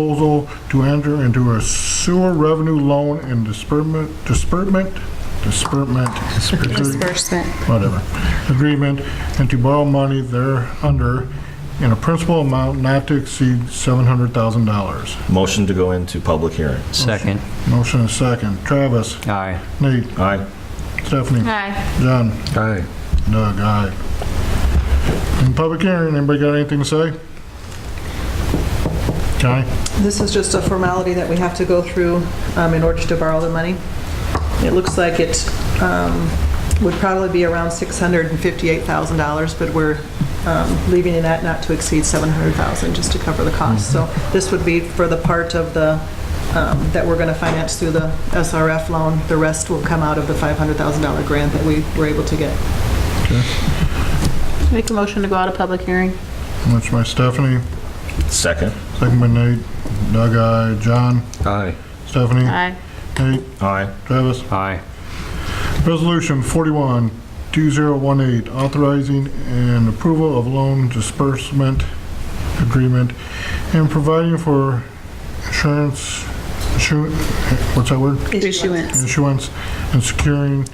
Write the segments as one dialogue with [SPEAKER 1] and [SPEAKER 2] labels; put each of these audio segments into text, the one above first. [SPEAKER 1] proposal to enter into a sewer revenue loan and disbursement, disbursement, disbursement,
[SPEAKER 2] Disbursement.
[SPEAKER 1] whatever, agreement, and to borrow money thereunder in a principal amount not to exceed $700,000.
[SPEAKER 3] Motion to go into public hearing.
[SPEAKER 4] Second.
[SPEAKER 1] Motion and second. Travis,
[SPEAKER 4] Aye.
[SPEAKER 1] Nate,
[SPEAKER 3] Aye.
[SPEAKER 1] Stephanie,
[SPEAKER 2] Aye.
[SPEAKER 1] John,
[SPEAKER 5] Aye.
[SPEAKER 1] Doug, aye. In public hearing, anybody got anything to say? Okay,
[SPEAKER 6] This is just a formality that we have to go through um, in order to borrow the money. It looks like it um, would probably be around $658,000, but we're um, leaving it at not to exceed $700,000 just to cover the cost. So this would be for the part of the, um, that we're going to finance through the SRF loan. The rest will come out of the $500,000 grant that we were able to get.
[SPEAKER 2] Make a motion to go out of public hearing.
[SPEAKER 1] that's by Stephanie,
[SPEAKER 3] Second.
[SPEAKER 1] second by Nate, Doug, aye, John,
[SPEAKER 5] Aye.
[SPEAKER 1] Stephanie,
[SPEAKER 2] Aye.
[SPEAKER 1] Nate,
[SPEAKER 3] Aye.
[SPEAKER 1] Travis.
[SPEAKER 4] Aye.
[SPEAKER 1] Resolution 41, 2018, authorizing an approval of loan disbursement agreement and providing for insurance, insu- what's that word?
[SPEAKER 2] Issuance.
[SPEAKER 1] Insurance and securing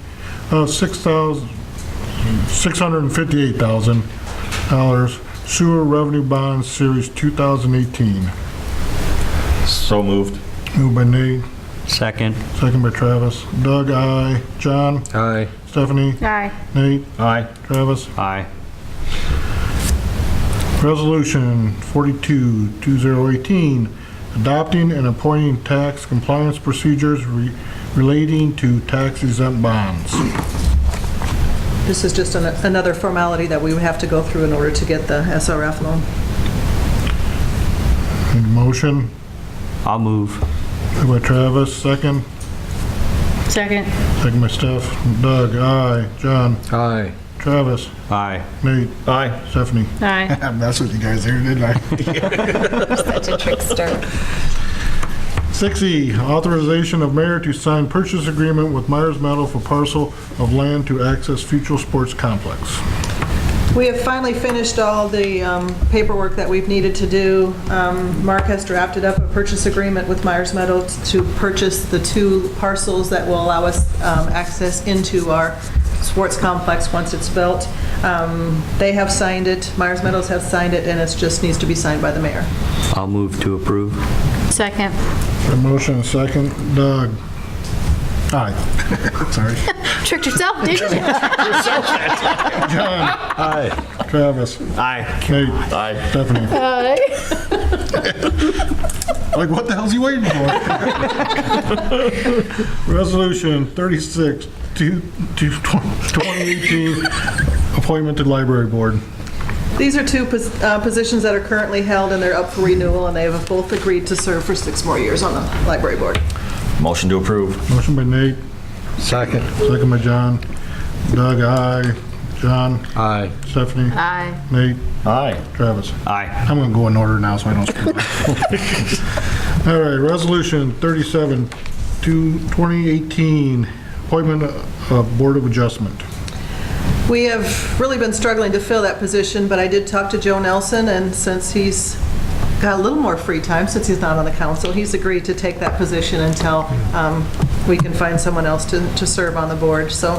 [SPEAKER 1] of six thousand six hundred and fifty-eight thousand dollars sewer revenue bond series 2018.
[SPEAKER 3] So moved.
[SPEAKER 1] Moved by Nate,
[SPEAKER 4] Second.
[SPEAKER 1] second by Travis. Doug, I, John,
[SPEAKER 5] Aye.
[SPEAKER 1] Stephanie,
[SPEAKER 2] Aye.
[SPEAKER 1] Nate,
[SPEAKER 3] Aye.
[SPEAKER 1] Travis.
[SPEAKER 4] Aye.
[SPEAKER 1] Resolution 42, 2018, adopting and appointing tax compliance procedures re- relating to tax exempt bonds.
[SPEAKER 6] This is just an- another formality that we would have to go through in order to get the SRF loan.
[SPEAKER 1] Need a Motion,
[SPEAKER 4] I'll move.
[SPEAKER 1] moved by Travis, second.
[SPEAKER 2] Second.
[SPEAKER 1] Second by Steph. Doug, aye. John,
[SPEAKER 5] Aye.
[SPEAKER 1] Travis,
[SPEAKER 4] Aye.
[SPEAKER 1] Nate,
[SPEAKER 3] Aye.
[SPEAKER 1] Stephanie.
[SPEAKER 2] Aye.
[SPEAKER 1] I messed with you guys here, didn't I?
[SPEAKER 2] Such a trickster.
[SPEAKER 1] 6E, E, authorization of mayor to sign purchase agreement with Myers Metal for parcel of land to access future sports complex.
[SPEAKER 6] We have finally finished all the um, paperwork that we've needed to do. Um, Mark has drafted up a purchase agreement with Myers Meadows to purchase the two parcels that will allow us um, access into our sports complex once it's built. Um, They have signed it, Myers Meadows has signed it, and it just needs to be signed by the mayor.
[SPEAKER 4] I'll move to approve.
[SPEAKER 2] Second.
[SPEAKER 1] A motion, and a second. Doug? Aye. Sorry.
[SPEAKER 2] Tricked yourself, didn't you?
[SPEAKER 1] John?
[SPEAKER 3] Aye.
[SPEAKER 1] Travis?
[SPEAKER 3] Aye.
[SPEAKER 1] Nate?
[SPEAKER 3] Aye.
[SPEAKER 1] Stephanie?
[SPEAKER 2] Aye.
[SPEAKER 1] Like, what the hell's he waiting for? Resolution 36, two- two- 2018, appointment to library board.
[SPEAKER 6] These are two pos- uh, positions that are currently held, and they're up for renewal, and they have both agreed to serve for six more years on the library board.
[SPEAKER 3] Motion to approve.
[SPEAKER 1] Motion by Nate,
[SPEAKER 5] Second.
[SPEAKER 1] second by John. Doug, aye. John?
[SPEAKER 5] Aye.
[SPEAKER 1] Stephanie?
[SPEAKER 2] Aye.
[SPEAKER 1] Nate?
[SPEAKER 3] Aye.
[SPEAKER 1] Travis?
[SPEAKER 4] Aye.
[SPEAKER 1] I'm going to go in order now so I don't screw up. All right, Resolution 37, to 2018, appointment of Board of Adjustment.
[SPEAKER 6] We have really been struggling to fill that position, but I did talk to Joe Nelson, and since he's got a little more free time, since he's not on the council, he's agreed to take that position until um, we can find someone else to to serve on the board, so,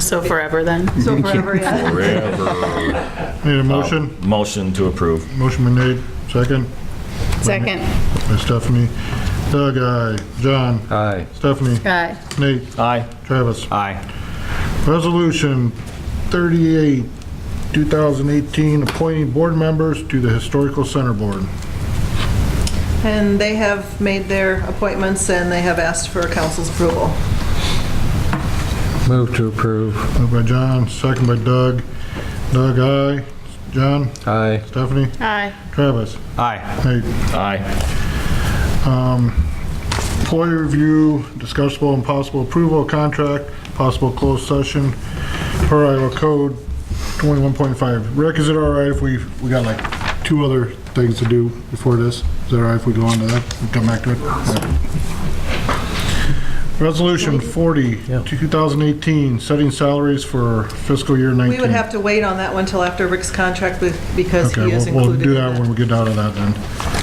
[SPEAKER 2] So forever then.
[SPEAKER 6] so forever, yeah.
[SPEAKER 1] Need a motion?
[SPEAKER 3] Motion to approve.
[SPEAKER 1] Motion been made, second
[SPEAKER 2] Second.
[SPEAKER 1] by Stephanie. Doug, aye. John?
[SPEAKER 5] Aye.
[SPEAKER 1] Stephanie?
[SPEAKER 2] Aye.
[SPEAKER 1] Nate?
[SPEAKER 3] Aye.
[SPEAKER 1] Travis?
[SPEAKER 4] Aye.
[SPEAKER 1] Resolution 38, 2018, appointing board members to the Historical Center Board.
[SPEAKER 6] And they have made their appointments, and they have asked for council's approval.
[SPEAKER 5] Move to approve.
[SPEAKER 1] Moved by John, second by Doug. Doug, aye. John?
[SPEAKER 5] Aye.
[SPEAKER 1] Stephanie?
[SPEAKER 2] Aye.
[SPEAKER 1] Travis?
[SPEAKER 4] Aye.
[SPEAKER 1] Nate?
[SPEAKER 3] Aye.
[SPEAKER 1] Um, Employee review, discussable and possible approval of contract, possible closed session per Iowa Code 21.5. Rick, is it all right if we, we got like two other things to do before this? Is it all right if we go on to that and come back to it? Yeah. Resolution 40, 2018, setting salaries for fiscal year 19.
[SPEAKER 6] We would have to wait on that one till after Rick's contract, be- because
[SPEAKER 1] Okay,
[SPEAKER 6] he is
[SPEAKER 1] we'll- we'll
[SPEAKER 6] included in
[SPEAKER 1] do that when
[SPEAKER 6] that.
[SPEAKER 1] we get out of that then.